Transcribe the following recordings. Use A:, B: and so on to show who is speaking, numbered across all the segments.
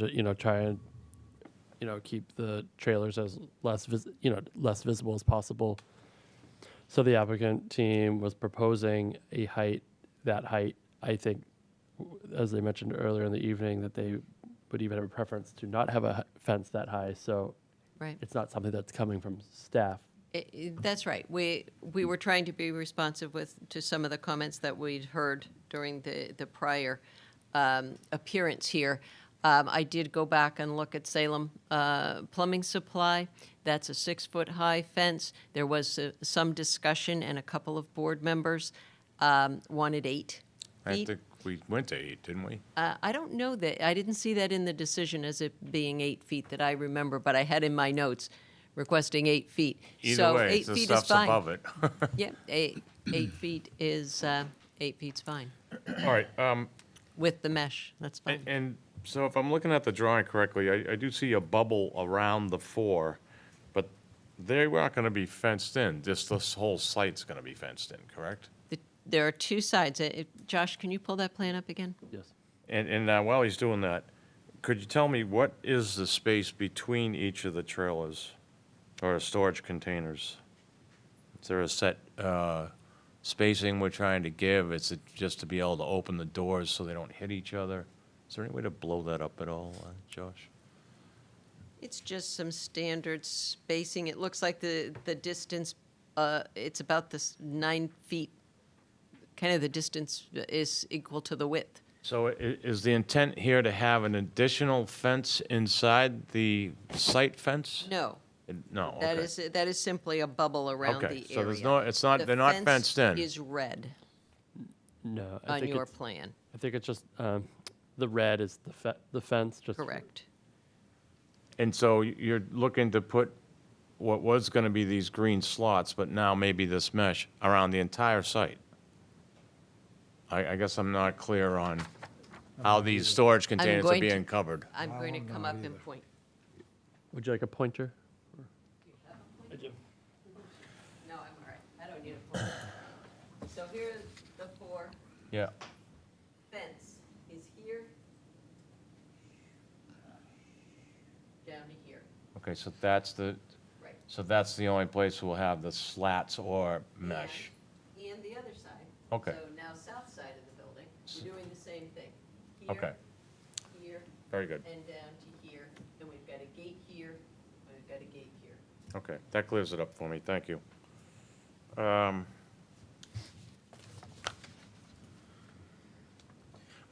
A: ju- you know, try and you know keep the trailers as less vis- you know less visible as possible. So the applicant team was proposing a height that height. I think, w- as they mentioned earlier in the evening, that they would even have a preference to not have a h- fence that high. So
B: Right.
A: it's not something that's coming from staff.
B: I- I- That's right. We, we were trying to be responsive with, to some of the comments that we'd heard during the, the prior um, appearance here. Um, I did go back and look at Salem uh, Plumbing Supply. That's a six-foot-high fence. There was uh, some discussion, and a couple of board members um, wanted eight
C: I
B: feet.
C: think we went to eight, didn't we?
B: Uh, I don't know that, I didn't see that in the decision as it being eight feet that I remember, but I had in my notes requesting eight feet.
C: Either
B: So
C: way,
B: eight
C: it's the
B: feet is
C: stuff's
B: fine.
C: above it.
B: Yeah, eight, eight feet is, uh, eight feet's fine,
D: All right, um,
B: with the mesh, that's
D: a-
B: fine.
D: and so if I'm looking at the drawing correctly, I, I do see a bubble around the four, but they aren't gonna be fenced in, this, this whole site's gonna be fenced in, correct?
B: The- There are two sides, Uh, it- Josh, can you pull that plan up again?
A: Yes.
D: And, and uh, while he's doing that, could you tell me what is the space between each of the trailers or storage containers?
C: Is there a set uh, spacing we're trying to give? Is it just to be able to open the doors so they don't hit each other? Is there any way to blow that up at all, uh, Josh?
B: It's just some standard spacing, it looks like the, the distance, uh, it's about this nine feet, kind of the distance is equal to the width.
C: So i- is the intent here to have an additional fence inside the site fence?
B: No,
C: No,
B: That
C: okay.
B: is, that is simply a bubble around the
C: Okay,
B: area.
C: so there's no- it's not-
B: The
C: they're not
B: fence
C: fenced in.
B: is red
A: No. I
B: on
A: think
B: your
A: it's-
B: plan,
A: I think it's just um, the red is the fe- the fence. Just
B: correct?
C: And so you're looking to put what was going to be these green slots, but now maybe this mesh around the entire site? I, I guess I'm not clear on how these storage containers are
B: going to-
C: being covered.
B: I'm
E: I
B: going to
E: don't
B: come
E: know
B: up
E: either.
B: and point.
A: Would you like a pointer? I do.
B: No, I'm all right, I don't need a pointer. So here is the four,
C: Yeah.
B: fence is here, down to here,
C: Okay, so that's the,
B: right.
C: so that's the only place we'll have the slats or mesh.
B: And and the other side.
C: Okay.
B: So now south side of the building, we're doing the same thing. Here,
C: Okay,
B: Here,
C: very good.
B: and down to here, and we've got a gate here, and we've got a gate here.
D: Okay, that clears it up for me, thank you. Um,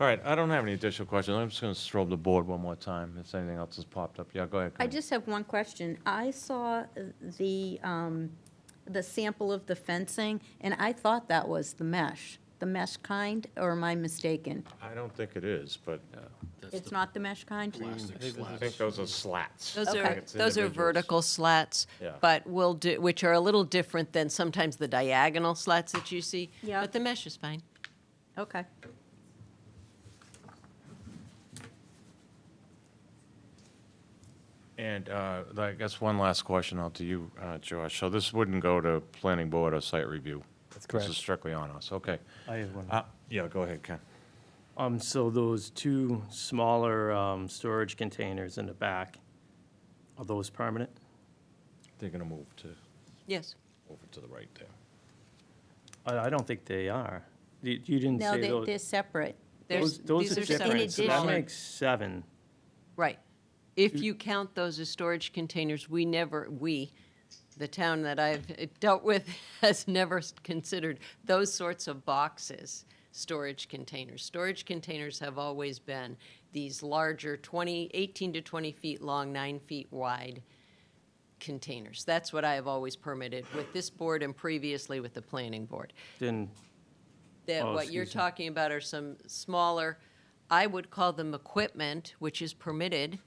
C: All right, I don't have any additional questions. I'm just going to strobe the board one more time if anything else has popped up. Yeah, go ahead.
F: I
C: Corinne.
F: just have one question. I saw the, um, the sample of the fencing, and I thought that was the mesh, the mesh kind, or am I mistaken?
D: I don't think it is, but
F: It's not the mesh kind?
D: I think those are slats.
B: Those
F: Okay.
B: are,
D: It's
B: those are
D: individuals.
B: vertical slats,
D: Yeah.
B: but will do, which are a little different than sometimes the diagonal slats that you see.
F: Yeah.
B: But the mesh is fine.
F: Okay.
C: And uh, I guess one last question out to you, uh, Josh. So this wouldn't go to planning board or site review?
A: That's
C: This
A: correct.
C: is strictly on us, okay.
G: I have one.
C: Uh, Yeah, go ahead, Ken.
G: Um, so those two smaller, um, storage containers in the back, are those permanent?
C: They're going to move to,
B: Yes.
C: over to the right there.
G: I, I don't think they are. You, you didn't
F: No,
G: say
F: they,
G: those.
F: they're separate.
B: There's,
G: those-
B: these are
G: Those are
B: separate.
G: different, so that
F: smaller.
B: smaller-
G: makes seven.
B: Right. If you count those as storage containers, we never, we, the town that I've dealt with has never s- considered those sorts of boxes storage containers. Storage containers have always been these larger 20, 18 to 20 feet long, nine feet wide containers. That's what I have always permitted with this board and previously with the planning board
G: Then,
B: that
G: Oh,
B: what you're
G: excuse me.
B: talking about are some smaller, I would call them equipment, which is permitted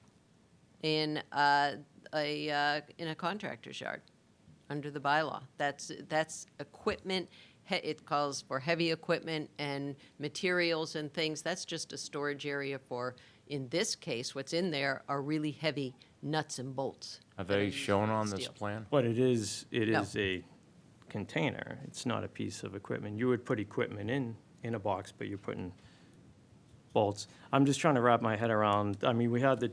B: in uh, a, uh, in a contractor's yard, under the bylaw. That's, that's equipment, he- it calls for heavy equipment and materials and things. That's just a storage area for, in this case, what's in there are really heavy nuts and bolts.
C: Are
B: that
C: they
B: used
C: shown
B: for
C: on this
B: steel.
C: plan?
G: but it is, it
B: No.
G: is a container. It's not a piece of equipment. You would put equipment in, in a box, but you're putting bolts. I'm just trying to wrap my head around, I mean, we had the